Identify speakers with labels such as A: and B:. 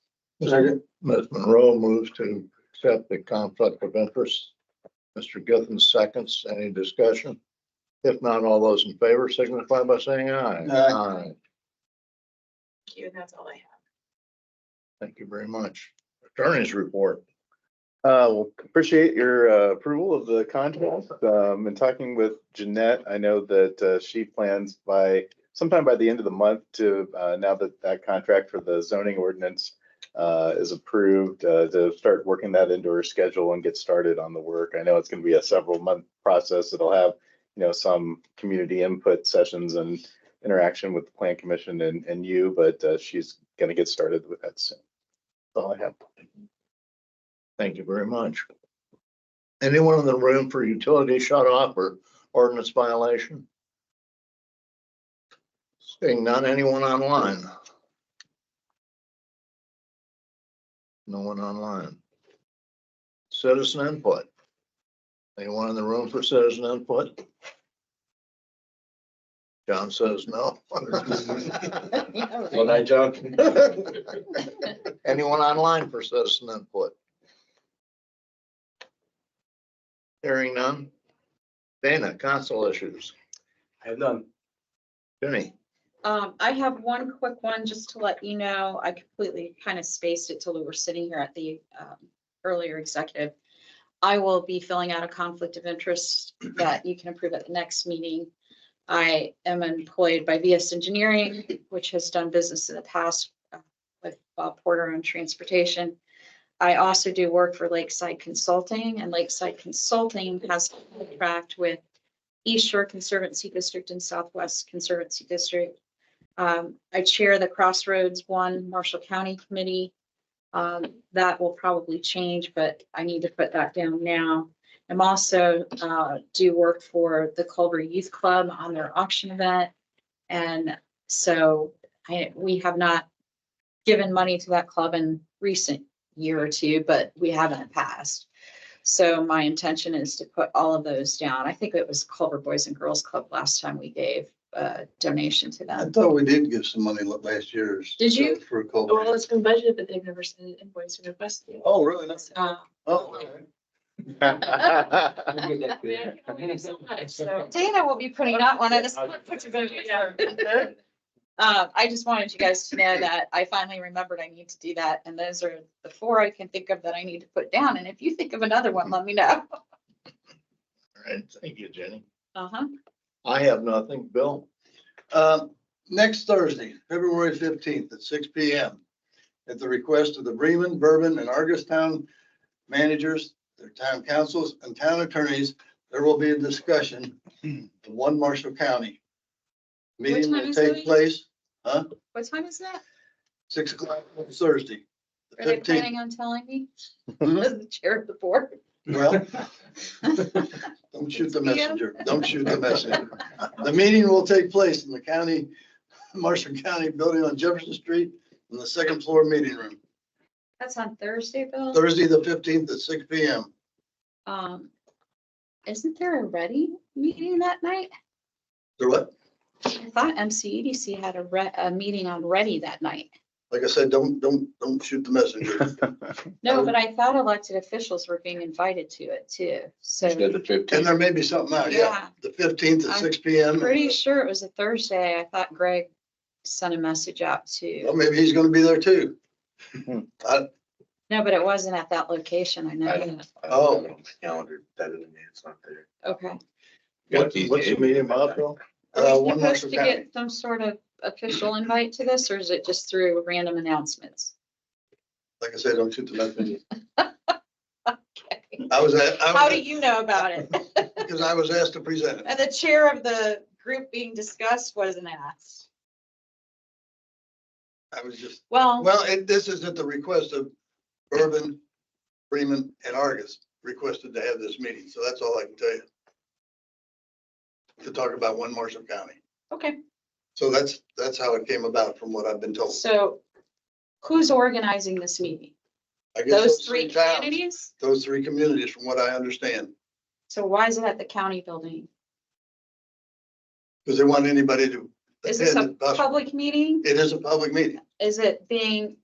A: Second. Ms. Monroe moves to accept the conflict of interest. Mr. Githens seconds. Any discussion? If not, all those in favor signify by saying aye.
B: Aye.
C: Thank you, and that's all I have.
A: Thank you very much. Attorney's report.
D: Uh, well, appreciate your uh, approval of the contract. Um, in talking with Jeanette, I know that uh, she plans by sometime by the end of the month to, uh, now that that contract for the zoning ordinance uh, is approved, uh, to start working that into her schedule and get started on the work. I know it's going to be a several month process. It'll have, you know, some community input sessions and interaction with the plan commission and, and you, but uh, she's going to get started with that soon. That's all I have.
A: Thank you very much. Anyone in the room for utility shut off or ordinance violation? Seeing none, anyone online? No one online. Citizen input. Anyone in the room for citizen input? John says no.
B: Well, I joke.
A: Anyone online for citizen input? Hearing none. Dana, council issues.
B: I have none.
A: Jenny,
C: Um, I have one quick one, just to let you know, I completely kind of spaced it till we were sitting here at the um, earlier executive. I will be filling out a conflict of interest that you can approve at the next meeting. I am employed by VS Engineering, which has done business in the past uh, with Bob Porter on transportation. I also do work for Lakeside Consulting, and Lakeside Consulting has a contract with East Shore Conservancy District and Southwest Conservancy District. Um, I chair the Crossroads One Marshall County Committee. Um, that will probably change, but I need to put that down now. I'm also, uh, do work for the Culver Youth Club on their auction event. And so I, we have not given money to that club in recent year or two, but we have in the past. So my intention is to put all of those down. I think it was Culver Boys and Girls Club last time we gave a donation to them.
E: I thought we did give some money la- last year's.
C: Did you?
E: For
F: Well,
E: COVID.
F: it's been budgeted, but they've never sent an invoice or requested. it.
E: Oh, really? No.
C: Uh,
E: Oh, okay.
B: We'll get that
F: I mean, I
B: clear.
F: can only do so much, so.
C: Dana will be putting out one of this.
F: Put your budget down.
C: Uh, I just wanted you guys to know that I finally remembered I need to do that, and those are the four I can think of that I need to put down, and if you think of another one, let me know.
A: all right, thank you, Jenny.
C: Uh-huh.
A: I have nothing. Bill?
E: Um, Next Thursday, February fifteenth at six P M. At the request of the Bremen, Bourbon and Argus Town managers, their town councils and town attorneys, there will be a discussion of one Marshall County. Meeting
C: time
E: will
C: is
E: take
C: it?
E: place
C: What time is that?
E: six o'clock on Thursday.
C: Are they
E: Fifteenth.
C: planning on telling me? As the chair of the board?
E: Well, don't shoot the
C: It's PM.
E: messenger. Don't shoot the messenger. The meeting will take place in the county, Marshall County Building on Jefferson Street in the second floor meeting room,
C: That's on Thursday, Bill?
E: Thursday, the fifteenth at six P M.
C: Um, isn't there a ready meeting that night?
E: There what?
C: I thought MCEDC had a re, a meeting on ready that night.
E: Like I said, don't, don't, don't shoot the messenger.
C: No,
E: Oh.
C: but I thought elected officials were being invited to it too, so
B: Instead of
E: And
B: fifteen.
E: there may be something out, yeah.
C: Yeah.
E: The fifteenth at
C: I'm
E: six P M.
C: pretty sure it was a Thursday. I thought Greg sent a message out
E: Well,
C: to,
E: maybe he's gonna be there too.
C: no, but it wasn't at that location. I know.
B: I-
C: that.
E: Oh.
B: Calendar, better than me, it's not there.
C: Okay.
A: What's what's the meeting about, Bill?
E: Uh,
C: Are we
E: one
C: supposed
E: Marshall
C: to
E: County.
C: get some sort of official invite to this or is it just through random announcements?
E: Like I said, don't shoot the messenger. I was, at-
C: How
E: I
C: do
E: was,
C: you know about it?
E: because I was asked to present it.
C: And the chair of the group being discussed wasn't asked.
E: I was just
C: Well,
E: Well, and this is at the request of Urban, Freeman and Argus requested to have this meeting. So that's all I can tell you. To talk about one Marshall County.
C: okay.
E: So that's, that's how it came about from what I've been told.
C: So who's organizing this meeting?
E: I guess
C: Those three
E: towns,
C: communities?
E: Those three communities, from what I understand,
C: So why is it at the county building?
E: because they want anybody to
C: Is this
E: attend.
C: a
E: if possible.
C: public meeting?
E: It is a public meeting.
C: Is it being